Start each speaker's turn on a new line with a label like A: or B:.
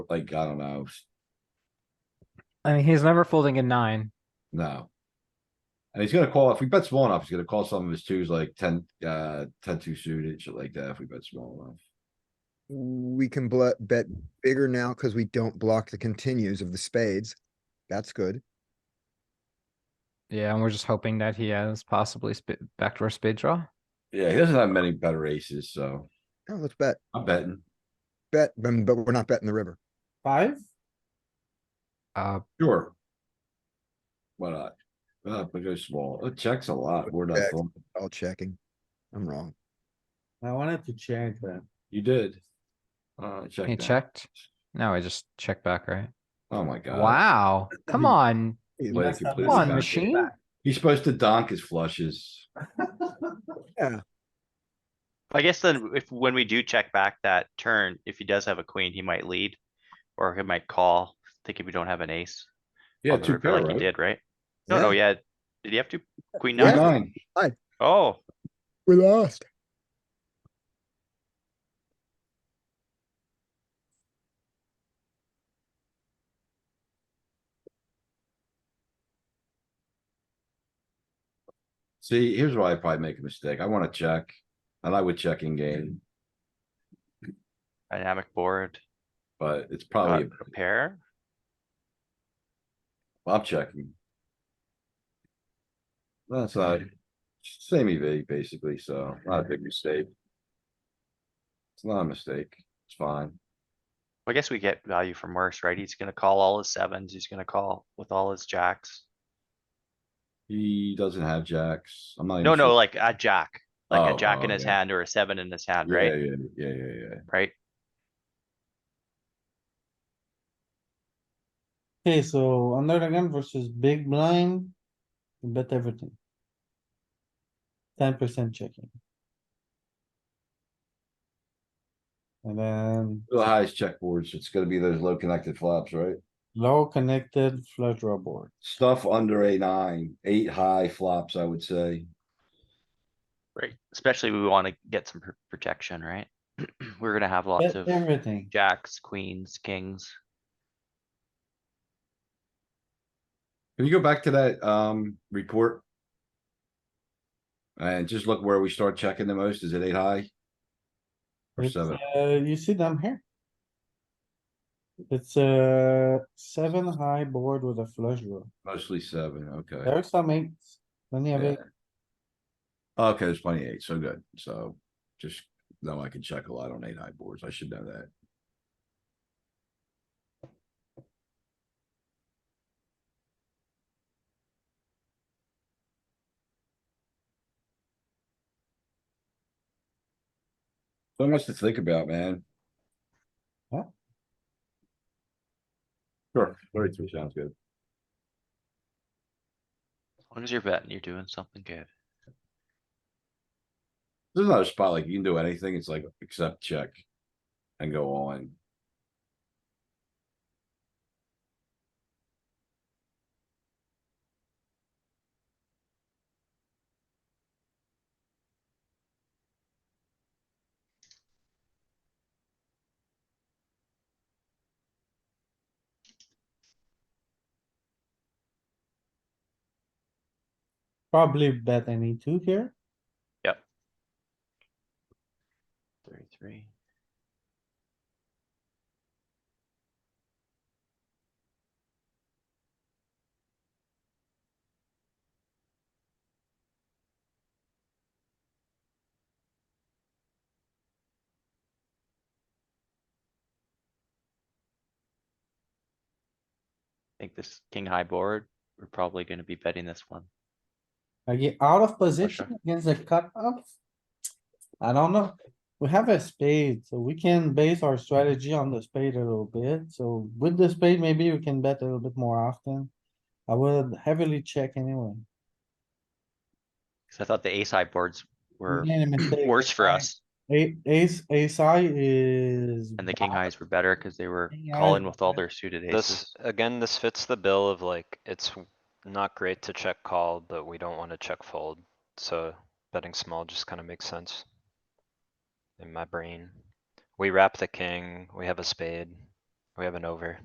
A: like, I don't know,
B: I mean, he's never folding a nine.
A: no. And he's gonna call, if we bet small enough, he's gonna call some of his twos like ten, uh, ten two suited, shit like that, if we bet small enough.
C: We can bl- bet bigger now because we don't block the continues of the spades. That's good.
B: Yeah, and we're just hoping that he has possibly sp- backdoor spade draw.
A: Yeah, he doesn't have many better aces, so
C: Oh, let's bet,
A: I'm betting.
C: bet, but but we're not betting the river.
D: Five?
B: Uh,
A: Sure. Why not? Uh, but go small. It checks a lot. We're not,
C: Check.
A: folding.
C: All checking. I'm wrong.
D: I wanted to check that.
A: you did. Uh, check
B: he
A: that.
B: checked. No, I just checked back, right?
A: Oh my god.
B: Wow, come on,
C: Either
A: Like
C: way.
D: messed up.
A: completely
B: come on,
A: back.
B: machine.
A: He's supposed to donk his flushes.
E: I guess then if, when we do check back that turn, if he does have a queen, he might lead. Or he might call, think if we don't have an ace.
A: Yeah,
E: on the
A: two
E: river
A: pair,
E: Like he
A: right?
E: did, right? No, no,
C: Yeah,
E: yeah. Did he have to,
A: Queen
E: queen nine?
A: Nine.
E: Oh,
C: We lost.
A: See, here's where I probably make a mistake. I wanna check, and I would check in game,
E: dynamic board,
A: but it's
E: not
A: probably,
E: a pair.
A: I'm checking. That's not, same EV basically, so not a big mistake. It's not a mistake, it's fine.
E: I guess we get value from worse, right? He's gonna call all his sevens, he's gonna call with all his jacks.
A: He doesn't have jacks, I'm not. even
E: No, no,
A: sure-
E: like a jack, like
A: Oh,
E: a jack in
A: oh,
E: his
A: yeah.
E: hand or a seven in his hand,
A: Yeah,
E: right?
A: Yeah, yeah, yeah, yeah.
E: Right?
D: Okay, so under the gun versus big blind, you bet everything. Ten percent checking. And then
A: The highest checkboards, it's gonna be those low connected flops, right?
D: low connected flush draw board.
A: Stuff under a nine, eight high flops, I would say.
E: Right. Especially we wanna get some pr- protection, right? We're gonna have lots
D: Bet
E: of
D: everything.
E: jacks, queens, kings.
A: Can you go back to that, um, report? And just look where we start checking the most. Is it eight high? Or
D: It's,
A: seven?
D: uh, you see them here? It's a seven high board with a flush draw.
A: Mostly seven, okay.
D: There are some eights. Then you have
A: Yeah.
D: eight.
A: Okay, there's plenty of eight, so good. So just know I can check a lot on eight high boards. I should know that. So much to think about, man.
D: Yeah.
A: Sure, thirty-three sounds good.
E: As long as you're betting, you're doing something good.
A: There's another spot like you can do anything. It's like except check and go on.
D: Probably bet any two here.
E: Thirty-three. I think this king high board, we're probably gonna be betting this one.
D: I get out of position against the cutoff. I don't know. We have a spade, so we can base our strategy on the spade a little bit. So with the spade, maybe we can bet a little bit more often. I would heavily check anyway.
E: Cause I thought the ace high boards were
D: made a mistake
E: worse for
D: there.
E: us
D: A- Ace, ace high is.
E: and the king highs were better cuz they were
D: King
E: calling
D: highs
E: with all
D: were
E: their suited aces.
F: This, again, this fits the bill of like, it's w- not great to check call, but we don't wanna check fold, so betting small just kinda makes sense. In my brain. We wrap the king, we have a spade, We have an over.